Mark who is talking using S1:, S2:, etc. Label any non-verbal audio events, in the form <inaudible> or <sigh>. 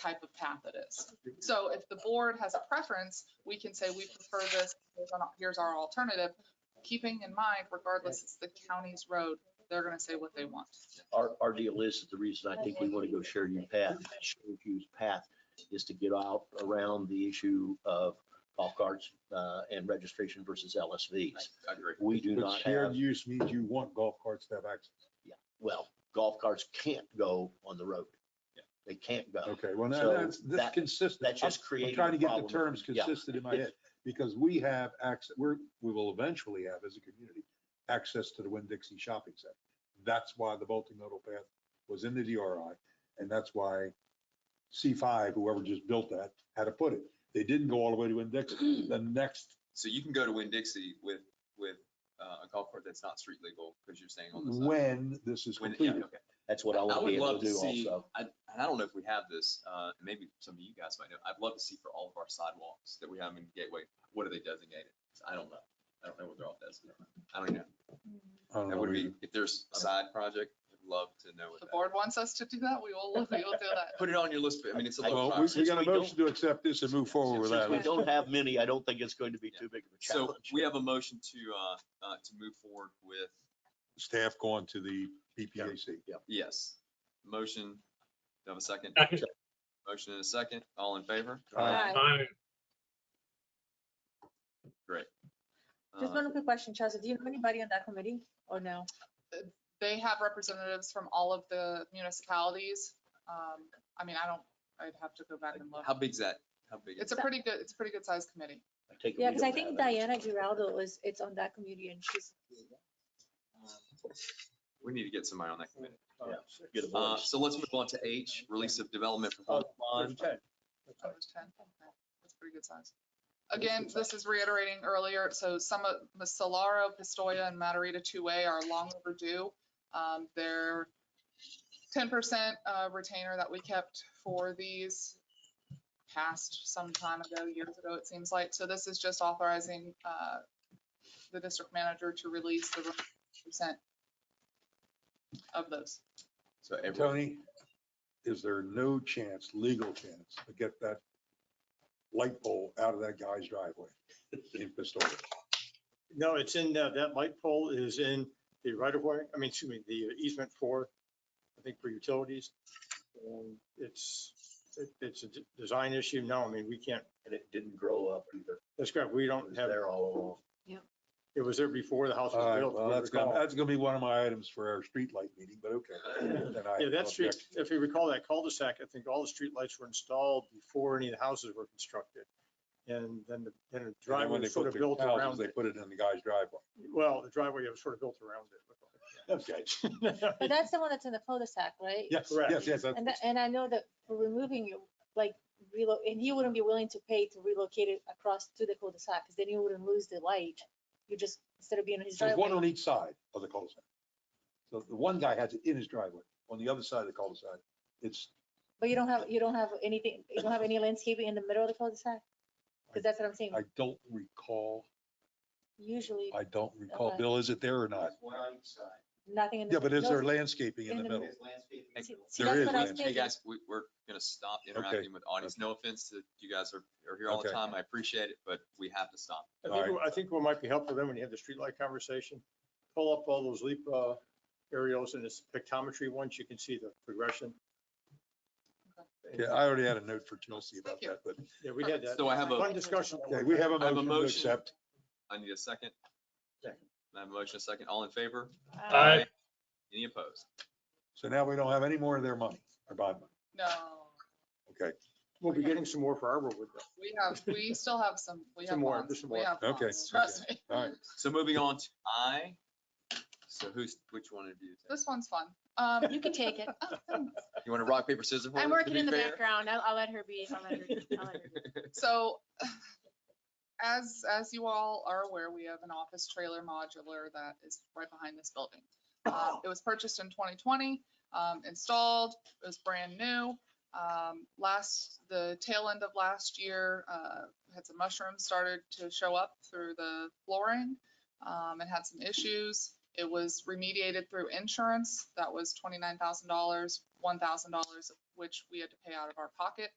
S1: type of path it is. So if the board has a preference, we can say we prefer this, here's an- here's our alternative. Keeping in mind, regardless, it's the county's road, they're gonna say what they want.
S2: Our, our deal is, that the reason I think we want to go Sheridan path, Sheridan Hughes path, is to get out around the issue of golf carts uh, and registration versus LSVs.
S3: I agree.
S2: We do
S4: But
S2: not
S4: Shared
S2: have,
S4: use means you want golf carts to have access.
S2: well, golf carts can't go on the road.
S3: Yeah.
S2: They can't go.
S4: Okay, well, now
S2: So
S4: that's, that's
S2: that-
S4: consistent.
S2: That's
S4: I'm-
S2: just creating.
S4: I'm trying to
S2: a
S4: get the
S2: problem.
S4: terms
S2: Yeah.
S4: consistent in my head, because we have access, we're, we will eventually have as a community, access to the Winn-Dixie Shopping Center. That's why the multimodal path was in the DRI, and that's why C5, whoever just built that, had to put it. They didn't go all the way to
S2: <clears throat>
S4: Winn-Dixie. The next,
S3: So you can go to Winn-Dixie with, with uh, a golf cart that's not street legal because you're staying on the side.
S4: when this is
S3: When- yeah,
S4: completed.
S3: okay.
S2: That's what I want to
S3: would
S2: be able
S3: love
S2: to do
S3: see-
S2: also.
S3: I, and I don't know if we have this, uh, and maybe some of you guys might know. I'd love to see for all of our sidewalks that we have in Gateway, what are they designated? I don't know. I don't know what they're all designated. I don't know.
S4: I don't
S3: That
S4: know
S3: would be,
S4: either.
S3: if there's a side project, I'd love to know
S1: If
S3: what
S1: the
S3: that.
S1: board wants us to do that, we will, we will do that.
S3: Put it on your list, but I mean, it's a little.
S4: Well, we-
S3: project.
S4: we
S2: Since
S4: got
S2: we
S4: a
S2: don't-
S4: motion to accept this and move forward with
S2: Since
S4: that.
S2: we
S4: Let's-
S2: don't have many, I don't think it's going to be too big of a
S3: So
S2: challenge.
S3: we have a motion to, uh, uh, to move forward with,
S4: staff going to the PPAC.
S3: yes, motion. Do I have a second?
S5: Second.
S3: Motion and a second. All in favor?
S4: Aye.
S5: Aye.
S6: Just
S3: Uh,
S6: one quick question, Chelsea. Do you have anybody on that committee or no?
S1: They have representatives from all of the municipalities. Um, I mean, I don't, I'd have to go back and
S3: How
S1: look.
S3: big's that? How big?
S1: It's
S3: is
S1: a
S3: it?
S1: pretty good, it's a pretty good sized committee.
S2: Take a
S6: Yeah,
S2: read
S6: because I
S2: on
S6: think
S2: that.
S6: Diana Giraldo is, it's on that committee and she's,
S3: We need to get somebody on that committee.
S2: Get a
S3: Uh,
S2: voice.
S3: so let's move on to H, release of development
S2: Oh,
S3: proposal.
S2: fine.
S1: Oh, there's 10? Okay, That's pretty good size. Again, this is reiterating earlier, so some of, the Solaro, Pistoia, and Matarita two-way are long overdue. Um, Their ten percent uh, retainer that we kept for these passed some time ago, years ago, it seems like. So this is just authorizing uh, the district manager to release the percent of those.
S3: So everyone,
S4: Tony, is there no chance, legal chance, to get that light pole out of that guy's driveway in Pistoia?
S7: No, it's in, uh, that light pole is in the right of way, I mean, excuse me, the easement for, I think for utilities. And it's, it- it's a d- design issue. No, I mean, we can't,
S2: And it didn't grow up either.
S7: that's correct. We
S2: It
S7: don't
S2: was
S7: have,
S2: there all along.
S7: it was there before the house
S4: All
S7: was
S4: right,
S7: built.
S4: well,
S7: if you
S4: that's gonna,
S7: recall.
S4: that's gonna be one of my items for our streetlight meeting, but
S7: <clears throat>
S4: okay. Then I
S7: Yeah, that
S4: have
S7: street,
S4: objection.
S7: if you recall that cul-de-sac, I think all the streetlights were installed before any of the houses were constructed. And then the,
S4: And then
S7: then the
S4: when
S7: driveway
S4: they
S7: was sort
S4: put
S7: of
S4: their
S7: built
S4: houses,
S7: around
S4: They
S7: it.
S4: put it in the guy's driveway.
S7: Well, the driveway was sort of built
S2: <laughs>
S7: around it. Okay. <laughs>
S6: but that's the one that's in the cul-de-sac, right?
S4: Yes,
S7: Correct.
S4: yes, yes. that's-
S6: And, that- and I know that for removing you, like, relo, and he wouldn't be willing to pay to relocate it across to the cul-de-sac because then you wouldn't lose the light. You just, instead of being in his
S4: There's one
S6: driveway.
S4: on each side of the cul-de-sac. So the one guy has it in his driveway. On the other side of the cul-de-sac, it's,
S6: But you don't have, you don't have anything, you don't have any landscaping in the middle of the cul-de-sac? Because that's what I'm saying.
S4: I don't recall,
S6: Usually
S4: I don't recall.
S6: Okay.
S4: Bill, is it there or not?
S6: nothing in the.
S4: Yeah, but is
S6: no,
S4: there landscaping in the middle?
S6: see- see,
S4: there
S6: that's
S4: is
S6: what I was
S3: hey
S4: landscaping.
S6: thinking.
S3: guys, we, we're gonna stop interacting with audience. No offense to you guys are, are here all the
S4: Okay.
S3: time. I appreciate it, but we have to stop.
S7: I
S4: All
S7: think,
S4: right.
S7: what- I think what might be helpful then, when you have the streetlight conversation, pull up all those leap uh, aerials and it's pictometry ones, you can see the progression.
S4: Yeah, I already had a note for Chelsea about
S1: Thank you.
S4: that, but
S7: Yeah, we had that.
S3: So I have a,
S7: One discussion.
S4: okay, we have
S3: I have a
S4: a motion to
S3: motion.
S4: accept.
S3: I need a second.
S7: Second.
S3: I have a motion, a second. All in favor?
S5: Aye.
S3: Any opposed?
S4: So now we don't have any more of their money, our bond money.
S1: No.
S4: Okay,
S7: We'll be getting some more for Arborwood. though.
S1: We have, we still have some, we have
S7: Some more,
S1: bonds.
S7: there's some
S1: We
S7: more.
S1: have
S4: Okay,
S1: bonds, Trust me.
S4: all right.
S3: So moving on to I. So who's, which one of you?
S1: This one's fun. Um, <laughs>
S8: You can take it.
S3: You want to rock, paper, scissors?
S8: I'm
S3: for it, to
S8: working
S3: be
S8: in the
S3: fair?
S8: background. I'll, I'll let her be. I'll let her. I'll let her be.
S1: so as, as you all are aware, we have an office trailer modular that is right behind this building. Um, It was purchased in 2020, um, installed, it was brand new. Um, Last, the tail end of last year, uh, had some mushrooms started to show up through the flooring um, and had some issues. It was remediated through insurance. That was twenty-nine thousand dollars, one thousand dollars, which we had to pay out of our pocket.